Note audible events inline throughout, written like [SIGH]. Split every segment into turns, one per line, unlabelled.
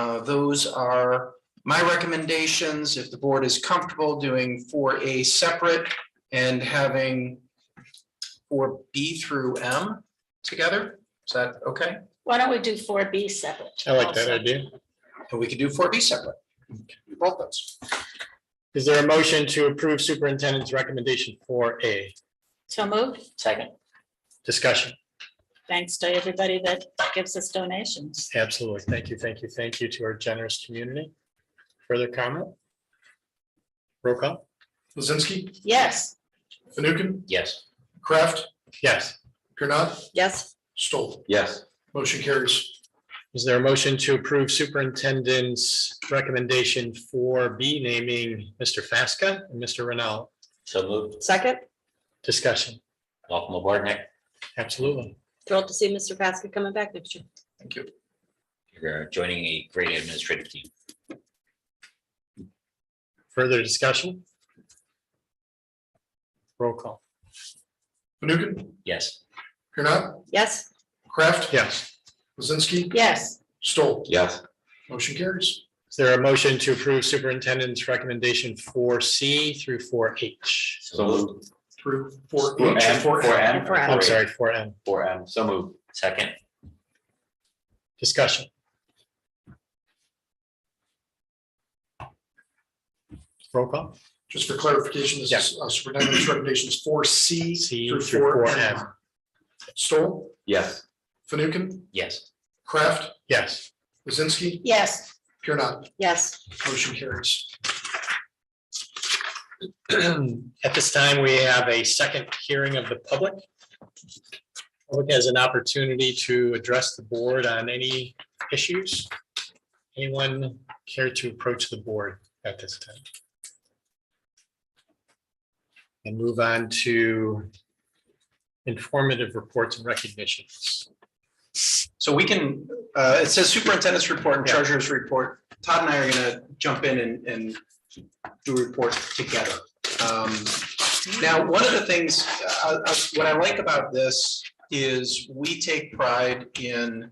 Uh, Those are my recommendations. If the board is comfortable doing four A separate and having four B through M together, is that okay?
Why don't we do four B separate?
I like that
also?
idea.
And we could do four B separate. Both those.
Is there a motion to approve superintendent's recommendation for a
So moved. Second.
discussion?
Thanks to everybody that gives us donations.
Absolutely. Thank you, thank you, thank you to our generous community. Further comment? Roll call?
Lizinski,
Yes.
Fanukin,
Yes.
Kraft,
Yes.
Kurnat,
Yes.
Stoll.
Yes.
Motion carries.
Is there a motion to approve superintendent's recommendation for B naming Mr. Fasca and Mr. Rennell?
So moved.
Second,
Discussion?
Welcome aboard, Nick.
Absolutely.
thrilled to see Mr. Paskett coming back next year.
Thank you.
You're uh, joining a great administrative team.
Further discussion? Roll call?
Fanukin,
Yes.
Kurnat,
Yes,
Kraft,
Yes.
Lizinski,
Yes.
Stoll.
Yes.
Motion carries.
Is there a motion to approve superintendent's recommendation for C through for H?
So moved.
Through four
Four
H.
M,
four
four
M.
M.
Four M.
I'm sorry, for M.
Four M, so moved. Second.
Discussion. Roll call.
Just for clarification, this is uh, superintendent's recommendations four C
C
through
through
four
4M.
M. Stoll,
Yes.
Fanukin,
Yes.
Kraft,
Yes.
Lizinski,
Yes.
Kurnat.
yes,
Motion carries.
[CLEARS THROAT] At this time, we have a second hearing of the public. Public has an opportunity to address the board on any issues. Anyone care to approach the board at this time? And move on to informative reports and recognitions.
So we can, uh, it says superintendent's report and
Yeah.
treasurer's report. Todd and I are gonna jump in and, and do a report together. Um, Now, one of the things, uh, uh, what I like about this is we take pride in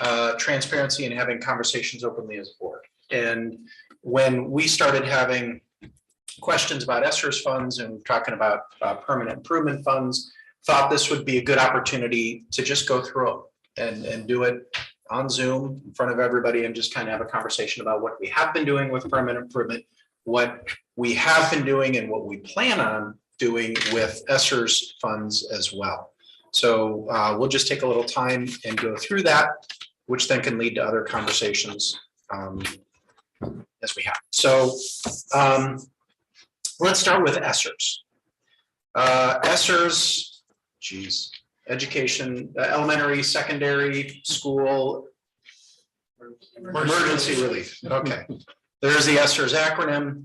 uh, transparency and having conversations openly as a board. And when we started having questions about ESSERS funds and talking about uh, permanent improvement funds, thought this would be a good opportunity to just go through them and, and do it on Zoom in front of everybody and just kind of have a conversation about what we have been doing with permanent improvement, what we have been doing and what we plan on doing with Esser's funds as well. So uh, we'll just take a little time and go through that, which then can lead to other conversations um, as we have. So um, let's start with Esser's. Uh, Esser's, geez, education, uh, elementary, secondary, school. Emergency relief, okay. There's the ESERS acronym.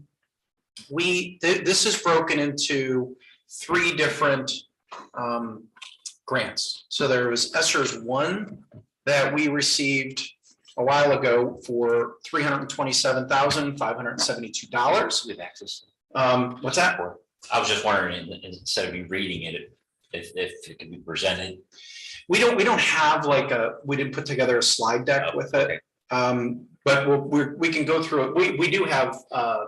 We, thi- this is broken into three different um, grants. So there was ESERS one that we received a while ago for three hundred and twenty-seven thousand, five hundred and seventy-two dollars.
With access.
Um, what's that?
for? I was just wondering, in- instead of me reading it, if, if it can be presented.
We don't, we don't have like a, we didn't put together a slide deck with it.
Okay.
Um, but we'll, we're, we can go through it. We, we do have, uh,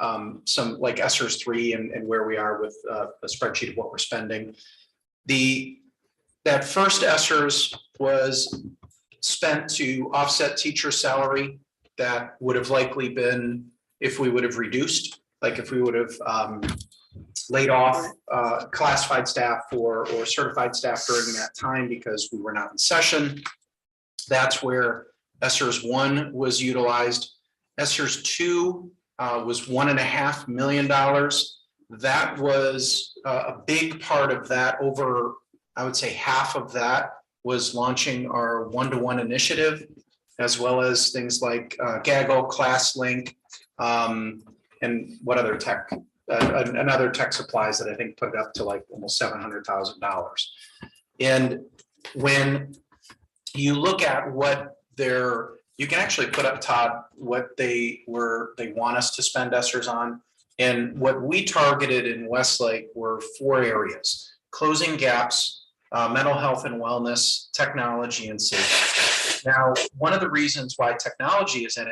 um, some like SRS three and, and where we are with, uh, a spreadsheet of what we're spending. The, that first SRS was spent to offset teacher salary that would have likely been if we would have reduced, like if we would have, um, laid off, uh, classified staff or, or certified staff during that time because we were not in session. That's where ESERS one was utilized. ESERS two uh, was one and a half million dollars. That was uh, a big part of that. Over, I would say, half of that was launching our one-to-one initiative, as well as things like uh, Gaggle, ClassLink, um, and what other tech, uh, an- another tech supplies that I think put it up to like almost seven hundred thousand dollars. And when you look at what their, you can actually put up, Todd, what they were, they want us to spend ESSERS on. And what we targeted in Westlake were four areas, closing gaps, uh, mental health and wellness, technology and safety. Now, one of the reasons why technology is in it.